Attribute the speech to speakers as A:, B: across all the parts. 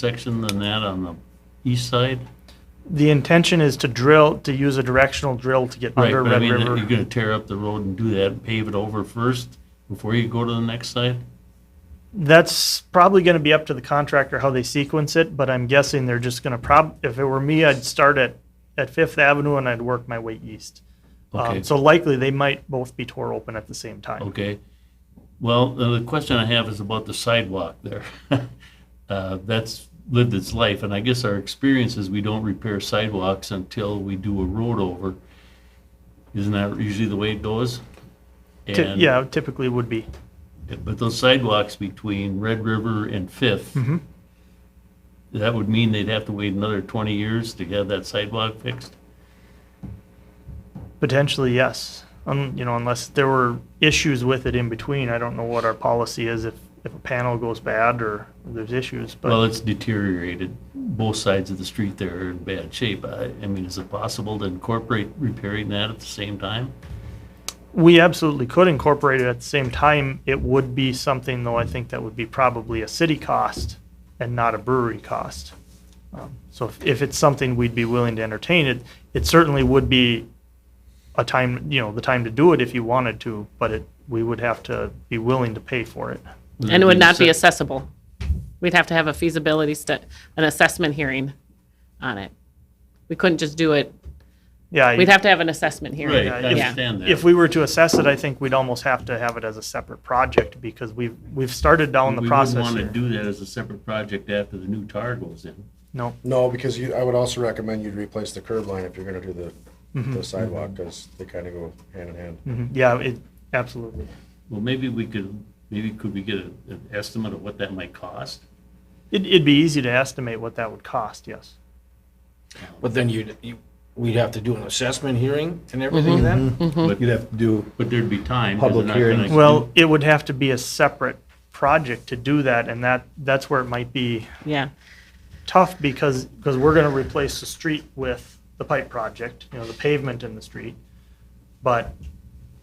A: section than that on the east side?
B: The intention is to drill, to use a directional drill to get
A: Right,
B: under
A: but I
B: Red
A: mean, you're
B: River.
A: gonna tear up the road and do that, and pave it over first before you go to the next side?
B: That's probably going to be up to the contractor how they sequence it, but I'm guessing they're just going to prob, if it were me, I'd start at, at Fifth Avenue and I'd work my way east.
A: Okay.
B: Um, So likely they might both be tore open at the same time.
A: Okay. Well, uh, the the question I have is about the sidewalk there. Uh, That's lived its life, and I guess our experience is we don't repair sidewalks until we do a road over. Isn't that usually the way it goes?
B: Ti-
A: And-
B: Yeah, typically would be.
A: But those sidewalks between Red River and Fifth,
B: Mm-hmm.
A: that would mean they'd have to wait another 20 years to have that sidewalk fixed?
B: Potentially, yes. Um, you know, unless there were issues with it in between. I don't know what our policy is if, if a panel goes bad or there's issues,
A: Well,
B: but
A: it's deteriorated. Both sides of the street there are in bad shape. I, I mean, is it possible to incorporate repairing that at the same time?
B: we absolutely could incorporate it at the same time. It would be something though, I think that would be probably a city cost and not a brewery cost. Um, So if, if it's something we'd be willing to entertain, it, it certainly would be a time, you know, the time to do it if you wanted to, but it, we would have to be willing to pay for it.
A: that
C: And it would not be
A: accept-
C: accessible. We'd have to have a feasibility stu, an assessment hearing on it. We couldn't just do it,
B: Yeah. I-
C: we'd have to have an assessment
A: Right,
C: hearing.
A: I
B: Yeah, if-
A: understand that.
B: If we were to assess it, I think we'd almost have to have it as a separate project because we've, we've started down the
A: We
B: process
A: wouldn't want
B: here.
A: to do that as a separate project after the new tar goes in.
B: No,
D: No, because you, I would also recommend you replace the curb line if you're gonna do the, the sidewalk, because they kinda go hand in hand.
B: mhm, yeah, it, absolutely.
A: Well, maybe we could, maybe could we get a- an estimate of what that might cost?
B: It, it'd be easy to estimate what that would cost, yes.
E: But then you'd, you, we'd have to do an assessment hearing and
C: Mm-hmm.
E: everything then?
A: But
F: You'd have to do,
A: but there'd be time. 'cause they're
F: Public
A: not gonna-
F: hearing.
B: Well, it would have to be a separate project to do that and that, that's where it might be
C: Yeah,
B: tough because, because we're gonna replace the street with the pipe project, you know, the pavement in the street. But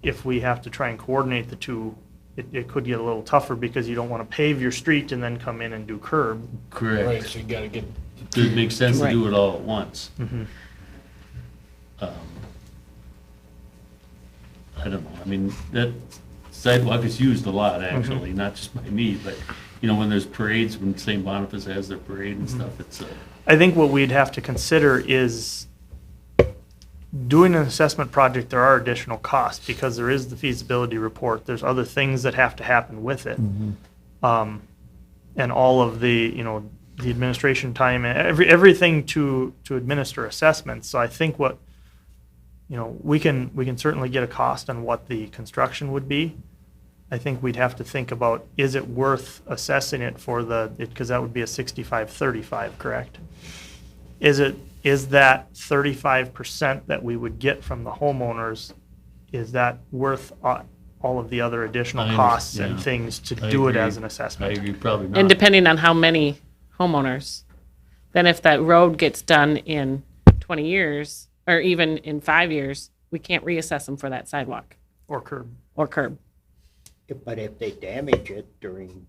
B: if we have to try and coordinate the two, it, it could get a little tougher because you don't wanna pave your street and then come in and do curb.
F: Mm-hmm.
E: Right,
A: Correct.
E: so you gotta get,
A: It makes sense to
C: Right.
A: do it all at once. Um, I don't know, I mean, that sidewalk is used a lot, actually, not just by me, but, you know, when there's parades, when St. Boniface has their parade and stuff, it's, uh,
B: I think what we'd have to consider is doing an assessment project, there are additional costs because there is the feasibility report. There's other things that have to happen with it. Um, and all of the, you know, the administration time and every, everything to, to administer assessments. So I think what, you know, we can, we can certainly get a cost on what the construction would be. I think we'd have to think about, is it worth assessing it for the, because that would be a 65-35, correct? Is it, is that 35% that we would get from the homeowners, is that worth a- all of the other additional
A: I
B: costs and
A: understand.
B: things to
A: I
B: do it
A: agree.
B: as an
A: I
B: assessment?
A: agree, probably
C: and
A: not.
C: depending on how many homeowners. Then if that road gets done in 20 years, or even in five years, we can't reassess them for that sidewalk
B: Or curb.
C: or curb.
G: But if they damage it during,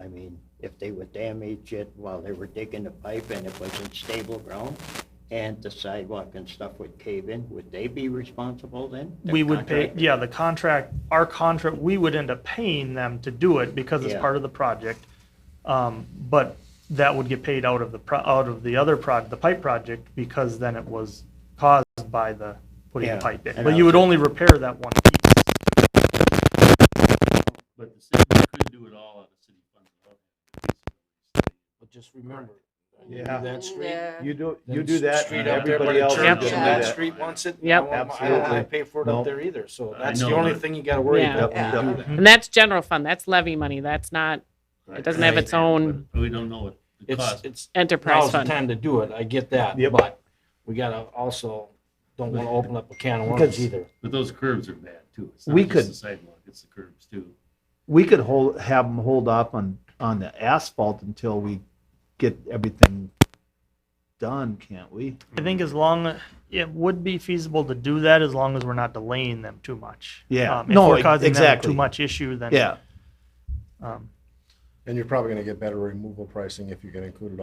G: I mean, if they would damage it while they were digging the pipe and it wasn't stable ground, and the sidewalk and stuff would cave in, would they be responsible then? The
B: We would pay,
G: contractor?
B: yeah, the contract, our contract, we would end up paying them to do it because it's
G: Yeah.
B: part of the project. Um, But that would get paid out of the, pro out of the other proj, the pipe project, because then it was caused by the, putting the
G: Yeah,
B: pipe in.
G: and
B: But you would only repair that one piece.
A: But the city could do it all out of city funds.
E: but just remember. you do
F: Yeah.
E: That street.
F: you do,
E: then
F: you do that
E: street
F: and
E: up there by
F: everybody
E: the
F: else
E: church,
F: will
C: Yep.
F: do
E: and
F: that.
E: That street wants it. I
C: Yep.
E: don't want my- I don't wanna
F: Absolutely.
E: pay for it up
F: Nope.
E: there either, so that's
A: know
E: the only
A: that.
E: thing you gotta worry
C: Yeah.
E: about when you do
F: Yep.
E: that.
C: And that's general fund, that's levy money, that's not
A: It
C: doesn't have its own-
A: We don't know what the
E: It's,
A: cost.
E: it's,
C: enterprise
E: now's the
C: fund.
E: time to do it, I get that,
F: Yep.
E: but we gotta also, don't wanna open up a can of worms
F: Because-
E: either.
A: But those curbs are bad, too. It's not
F: We
A: just
F: could-
A: the sidewalk, it's the curbs, too.
F: We could hold, have them hold off on, on the asphalt until we get everything done, can't we?
B: I think as long, it would be feasible to do that as long as we're not delaying them too much.
F: Yeah.
B: Um, If
F: No,
B: we're
F: e-
B: causing them too
F: exactly.
B: much issue, then.
F: Yeah,
B: um,
D: And you're probably gonna get better removal pricing if you can include it all